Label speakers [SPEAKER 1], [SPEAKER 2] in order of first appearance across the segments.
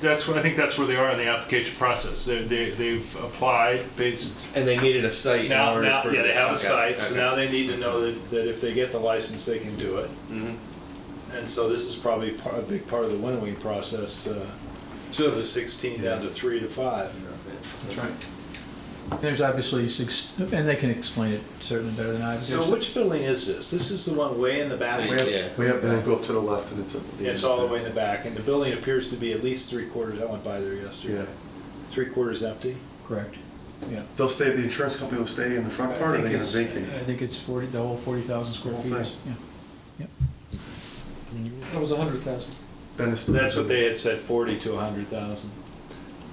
[SPEAKER 1] That's what, I think that's where they are in the application process. They, they, they've applied based,
[SPEAKER 2] And they needed a site in
[SPEAKER 1] now,
[SPEAKER 2] order
[SPEAKER 1] now,
[SPEAKER 2] for.
[SPEAKER 1] yeah, they have a
[SPEAKER 2] okay,
[SPEAKER 1] site, so
[SPEAKER 2] okay.
[SPEAKER 1] now they need to know that, that if they get the license, they can do it.
[SPEAKER 2] Mm-hmm.
[SPEAKER 1] And so this is probably par- a big part of the winnowing process, uh,
[SPEAKER 2] So
[SPEAKER 1] of
[SPEAKER 2] if-
[SPEAKER 1] the sixteen down to three to five.
[SPEAKER 3] That's right. There's obviously six, and they can explain it certainly better than I.
[SPEAKER 1] So which building is this? This is the one way in the back?
[SPEAKER 4] We
[SPEAKER 2] Yeah.
[SPEAKER 4] have, we have, and then go up to the left and it's at the
[SPEAKER 1] Yeah, It's all the way in the back, and the building appears to be at least three quarters, I went by there
[SPEAKER 4] Yeah.
[SPEAKER 1] yesterday. Three quarters empty?
[SPEAKER 3] Correct, yeah.
[SPEAKER 4] They'll stay, the insurance company will stay in the front part or
[SPEAKER 3] I
[SPEAKER 4] they're
[SPEAKER 3] think
[SPEAKER 4] gonna
[SPEAKER 3] it's- I
[SPEAKER 4] vacate?
[SPEAKER 3] think it's 40, the whole 40,000 square
[SPEAKER 4] Whole
[SPEAKER 3] feet,
[SPEAKER 4] thing.
[SPEAKER 3] is- yeah, yeah.
[SPEAKER 5] That was a hundred thousand.
[SPEAKER 4] Ben is still-
[SPEAKER 1] That's what they had said, forty to a hundred thousand.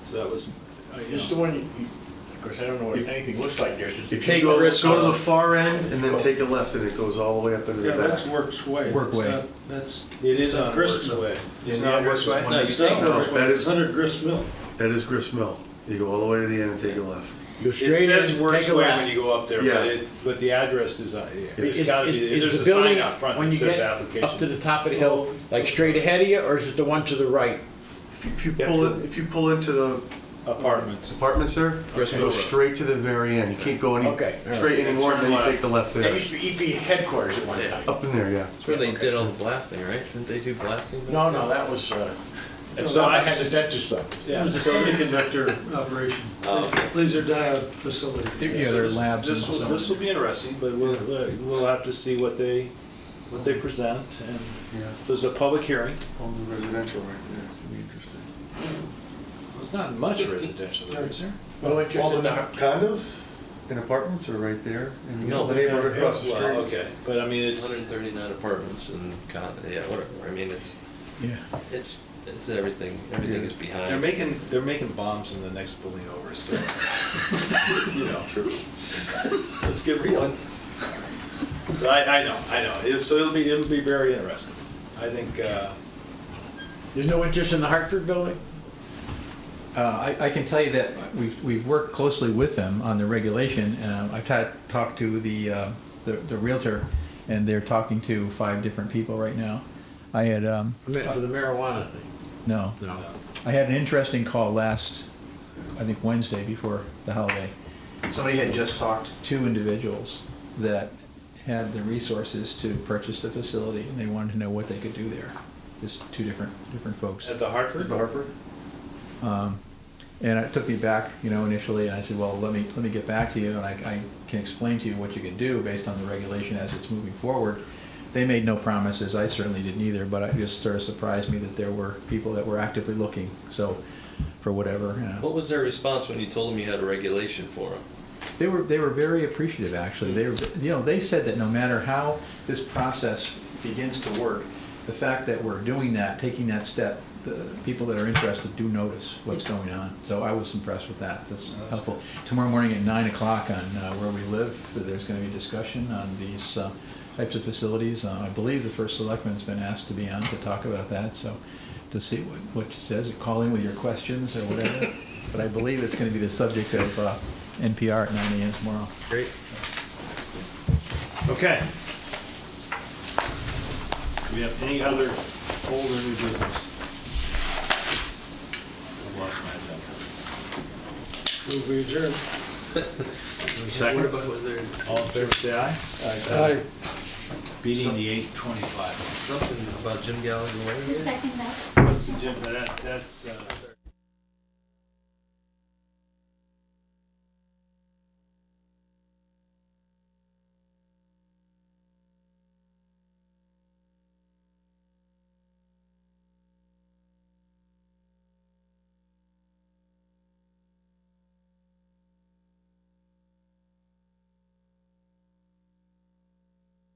[SPEAKER 1] So that was, uh, you
[SPEAKER 6] It's
[SPEAKER 1] know.
[SPEAKER 6] the one, you- you- of course, I don't know what anything looks like there since.
[SPEAKER 4] If
[SPEAKER 6] the-
[SPEAKER 4] you
[SPEAKER 2] Take the
[SPEAKER 4] go,
[SPEAKER 2] risk
[SPEAKER 4] go to the
[SPEAKER 2] off.
[SPEAKER 4] far end and then take a left and it goes all the way up into the
[SPEAKER 7] Yeah, that's
[SPEAKER 4] back.
[SPEAKER 7] Works Way.
[SPEAKER 3] Work
[SPEAKER 7] It's
[SPEAKER 3] Way.
[SPEAKER 7] not- That's.
[SPEAKER 1] It is
[SPEAKER 7] it's
[SPEAKER 1] on Works
[SPEAKER 7] Grist Mill.
[SPEAKER 1] Way.
[SPEAKER 7] It's
[SPEAKER 1] Isn't
[SPEAKER 7] not
[SPEAKER 1] it
[SPEAKER 7] Works Way?
[SPEAKER 2] No, you
[SPEAKER 7] It's
[SPEAKER 2] take
[SPEAKER 7] not
[SPEAKER 4] no,
[SPEAKER 7] Works Way.
[SPEAKER 4] that is-
[SPEAKER 7] It's under Grist Mill.
[SPEAKER 4] That is Grist Mill. You go all the way to the end and take a left.
[SPEAKER 1] It says Works Way when you go up there,
[SPEAKER 4] Yeah.
[SPEAKER 1] but it's, but the address is, uh, yeah, there's
[SPEAKER 5] Is-
[SPEAKER 1] gotta
[SPEAKER 5] is-
[SPEAKER 1] be,
[SPEAKER 5] is
[SPEAKER 1] there's
[SPEAKER 5] the
[SPEAKER 1] a sign
[SPEAKER 5] building
[SPEAKER 1] out front
[SPEAKER 5] when
[SPEAKER 1] that
[SPEAKER 5] you
[SPEAKER 1] says
[SPEAKER 5] get Up to
[SPEAKER 1] application.
[SPEAKER 5] the top of the hill, like straight ahead of you, or is it the one to the right?
[SPEAKER 4] If you- If you
[SPEAKER 1] Yeah,
[SPEAKER 4] pull
[SPEAKER 1] true.
[SPEAKER 4] it, if you pull into the
[SPEAKER 1] Apartments.
[SPEAKER 4] apartments there, you
[SPEAKER 2] Grist Mill
[SPEAKER 4] go
[SPEAKER 2] Road.
[SPEAKER 4] straight to the very end. You can't go any,
[SPEAKER 5] Okay, all right.
[SPEAKER 4] straight anymore and then
[SPEAKER 1] Turn
[SPEAKER 4] you take the left
[SPEAKER 5] That
[SPEAKER 4] there.
[SPEAKER 5] used to be EP headquarters at one time.
[SPEAKER 4] Up in there, yeah.
[SPEAKER 2] That's where they did all the blasting, right? Didn't they do blasting?
[SPEAKER 5] No, no, that was, uh,
[SPEAKER 1] And
[SPEAKER 5] no,
[SPEAKER 1] so I
[SPEAKER 5] I
[SPEAKER 1] had
[SPEAKER 5] had the
[SPEAKER 1] to,
[SPEAKER 5] dentist stuff.
[SPEAKER 7] It
[SPEAKER 1] yeah,
[SPEAKER 7] was a
[SPEAKER 1] so
[SPEAKER 7] semiconductor operation,
[SPEAKER 2] Oh, okay.
[SPEAKER 7] laser diode facility.
[SPEAKER 3] There- Yeah,
[SPEAKER 1] So
[SPEAKER 3] there are
[SPEAKER 1] this-
[SPEAKER 3] labs and
[SPEAKER 1] This will, this
[SPEAKER 3] stuff.
[SPEAKER 1] will be interesting, but we'll, uh, we'll have to see what they, what they present, and
[SPEAKER 4] Yeah,
[SPEAKER 1] so it's a public hearing.
[SPEAKER 4] all the residential right there. It's gonna be interesting.
[SPEAKER 1] There's not much residential there, is there?
[SPEAKER 5] Well, it's just
[SPEAKER 4] All the
[SPEAKER 5] about-
[SPEAKER 4] condos and apartments are right there in
[SPEAKER 2] No,
[SPEAKER 4] the
[SPEAKER 2] they
[SPEAKER 4] neighborhood across the
[SPEAKER 1] Well,
[SPEAKER 4] street.
[SPEAKER 1] okay, but I mean, it's,
[SPEAKER 2] 139 apartments and con, yeah, whatever. I mean, it's
[SPEAKER 3] Yeah.
[SPEAKER 2] it's it's everything. Everything
[SPEAKER 4] Yeah.
[SPEAKER 2] is behind.
[SPEAKER 1] they're making, they're making bombs in the next building over, so, you know. True. Let's get real. But I, I know, I know, It- so it'll be, it'll be very interesting. I think, uh,
[SPEAKER 5] There's no interest in the Hartford building?
[SPEAKER 3] Uh, I, I can tell you that we've, we've worked closely with them on the regulation. Um, I've ta- talked to the, uh, the, the Realtor, and they're talking to five different people right now. I had, um,
[SPEAKER 5] I meant for the marijuana thing.
[SPEAKER 3] no.
[SPEAKER 5] No.
[SPEAKER 3] I had an interesting call last, I think Wednesday before the holiday. Somebody had just talked to individuals that had the resources to purchase the facility, and they wanted to know what they could do there. Just two different, different folks.
[SPEAKER 1] at the Hartford,
[SPEAKER 4] Is the Harper?
[SPEAKER 3] Um, And it took me back, you know, initially, and I said, well, let me, let me get back to you, and I, I can explain to you what you can do based on the regulation as it's moving forward. They made no promises, I certainly didn't either, but it just sort of surprised me that there were people that were actively looking, so, for whatever. uh, you know.
[SPEAKER 2] What was their response when you told them you had a regulation for them?
[SPEAKER 3] They were, they were very appreciative, actually. They were, you know, they said that no matter how this process begins to work, the fact that we're doing that, taking that step, the people that are interested do notice what's going on. So I was impressed with that. That's
[SPEAKER 1] That's
[SPEAKER 3] helpful. Tomorrow morning at nine o'clock on uh, where we live, there's going to be a discussion on these uh, types of facilities. Uh, I believe the first selectman's been asked to be on to talk about that, so to see what, what she says, or call in with your questions or whatever. But I believe it's going to be the subject of uh, NPR at nine AM tomorrow.
[SPEAKER 2] Great.
[SPEAKER 1] okay. Do we have any other old or new business? I've lost my agenda.
[SPEAKER 7] Move we adjourn.
[SPEAKER 1] Second,
[SPEAKER 2] was there
[SPEAKER 1] all in favor, say aye.
[SPEAKER 5] Aye.
[SPEAKER 1] Beating the eight twenty-five.
[SPEAKER 2] something about Jim Gallagher?
[SPEAKER 8] Who seconded that?
[SPEAKER 1] That's, Jim, that, that's, uh.